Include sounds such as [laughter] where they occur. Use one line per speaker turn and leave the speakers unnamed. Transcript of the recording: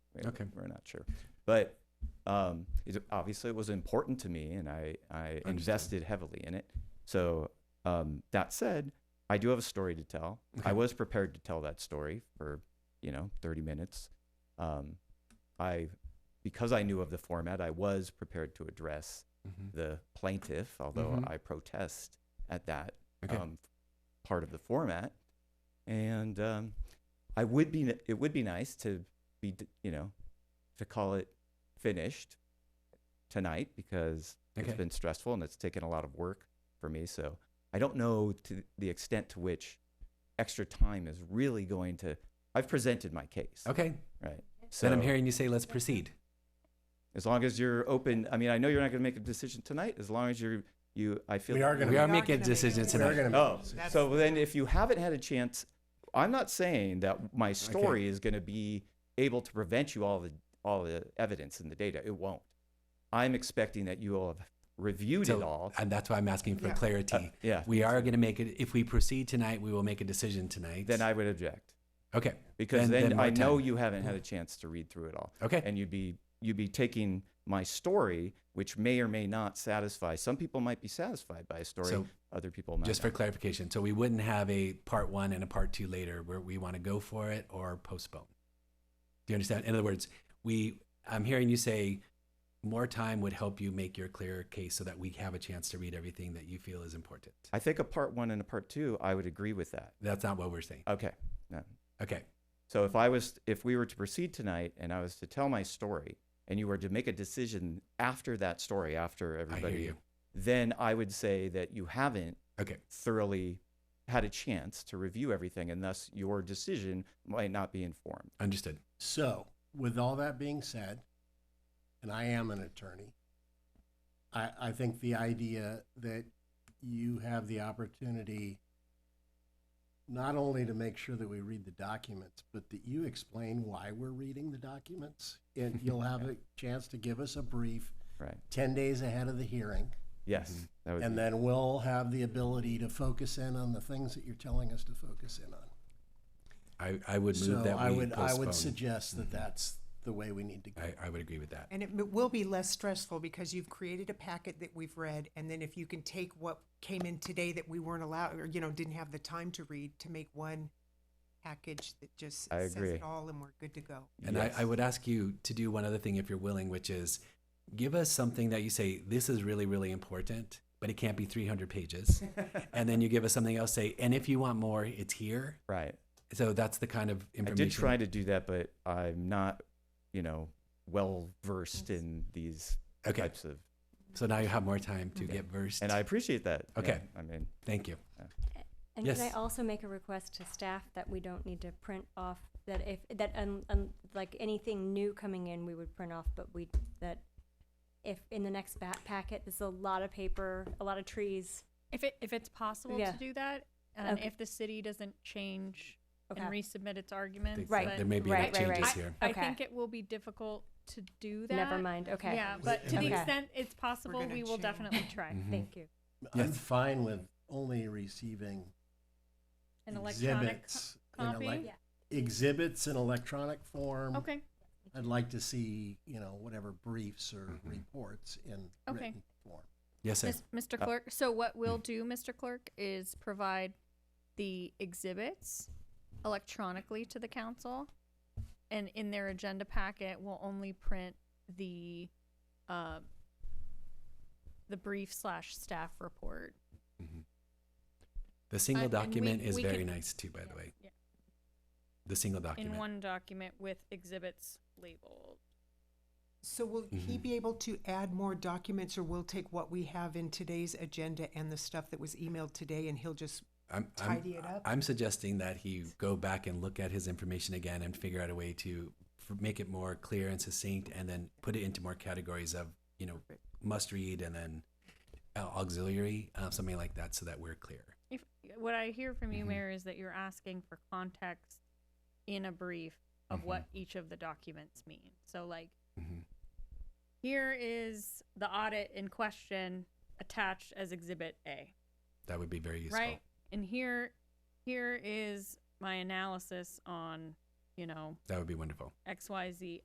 Okay.
We're not sure. But um, it, obviously, it was important to me, and I, I
Understood.
invested heavily in it. So um, that said, I do have a story to tell.
Okay.
I was prepared to tell that story for you know 30 minutes. Um, I, because I knew of the format, I was prepared to address
Mhm.
the plaintiff, although
Mhm.
I protest at that
Okay.
um, part of the format. And um, I would be it would be nice to be d- you know to call it finished tonight because
Okay.
it's been stressful and it's taken a lot of work for me. So I don't know to the extent to which extra time is really going to. I've presented my case,
okay.
right? So
Then I'm hearing you say, let's proceed.
as long as you're open, I mean, I know you're not going to make a decision tonight. As long as you're you, I feel
We are gonna
We
make-
are
We're
making a
gonna make a
decision
We are
tonight.
gonna make
Oh,
a
That's-
so then if you haven't had a chance, I'm not saying that my story is going to be able to prevent you all the all the evidence and the data. It won't. I'm expecting that you all have reviewed
So-
it all.
And that's why I'm asking for
Yeah.
clarity.
Uh, yeah.
We are going to make it, if we proceed tonight, we will make a decision tonight.
Then I would object
Okay.
because
Then-
then,
then more
I know
time.
you haven't had a chance to read through it all,
Okay.
and you'd be you'd be taking my story, which may or may not satisfy. Some people might be satisfied by a story.
So-
other people might.
Just
not.
for clarification, so we wouldn't have a part one and a part two later where we want to go for it or postpone. Do you understand? In other words, we I'm hearing you say more time would help you make your clearer case so that we have a chance to read everything that you feel is important.
I think a part one and a part two. I would agree with that.
That's not what we're saying.
Okay. No.
Okay.
So if I was, if we were to proceed tonight and I was to tell my story and you were to make a decision after that story, after everybody,
I hear you.
then I would say that you haven't
Okay.
thoroughly had a chance to review everything and thus your decision might not be informed.
Understood.
So, with all that being said, and I am an attorney, I, I think the idea that you have the opportunity not only to make sure that we read the documents, but that you explain why we're reading the documents. And
[laughs]
you'll have a chance to give us a brief
Right.
10 days ahead of the hearing.
Yes.
Mm-hmm.
That would
And
be-
then we'll have the ability to focus in on the things that you're telling us to focus in on.
I, I would move
So
that
I
we
would, I
postpone. Mm-hmm.
would suggest that that's the way we need to go.
I, I would agree with that.
And it m- will be less stressful because you've created a packet that we've read, and then if you can take what came in today that we weren't allowed, or, you know, didn't have the time to read, to make one package that just
I
says
agree.
it all and we're good to go.
And
Yes.
I, I would ask you to do one other thing if you're willing, which is give us something that you say, this is really, really important, but it can't be
[laughs]
300 pages. and then you give us something else, say, and if you want more, it's here.
right.
So that's the kind of
I
information.
did try to do that, but I'm not, you know, well versed in these
Okay.
types of,
So now you have more time to get versed.
and I appreciate that. Yeah,
Okay.
I mean,
Thank you.
And could I
Yes.
also make a request to staff that we don't need to print off that if that un, un, like anything new coming in, we would print off, but we that if in the next bat packet, there's a lot of paper, a lot of trees.
If it if it's possible
Yeah.
to do that, and
Okay.
if the city doesn't change
Okay.
and resubmit its
I think
arguments,
Right.
that
but-
There may be
Right,
enough
right, right.
changes
I,
here.
I
Okay.
think it will be difficult to do that.
Never mind. Okay.
Yeah, but to the
Okay.
extent it's possible,
gonna
we will
change.
definitely try
Mhm.
Thank you.
I'm
Yes.
fine with only receiving
an electronic co-
Exhibits in a
copy.
light- exhibits in electronic form.
Okay.
I'd like to see, you know, whatever briefs or reports in
Okay.
written form.
Yes, sir.
Miss- Mr.
Uh,
Clerk, so what we'll
Mm.
do, Mr. Clerk, is provide the exhibits electronically to the council. And in their agenda packet, we'll only print the, uh, the brief slash staff report.
The single
uh, and we-
document is
we
very
can-
nice too, by the way.
Yeah.
The single
In
document.
one document with exhibits labeled.
So will he
Mm-hmm.
Mhm.
be able to add more documents, or we'll take what we have in today's agenda and the stuff that was emailed today, and he'll just,
I'm,
tidy it up.
I'm suggesting that he go back and look at his information again and figure out a way to f- make it more clear and succinct, and then put it into more categories of you know must read and then uh, auxiliary, uh, something like that, so that we're clear.
If, what I hear from you,
Mhm.
Mayor, is that you're asking for context in a brief of what each of the documents mean. So, like, here is the audit in question attached as exhibit A,
That would be very useful.
right? And here, here is my analysis on, you know,
That would be wonderful.
X, Y, Z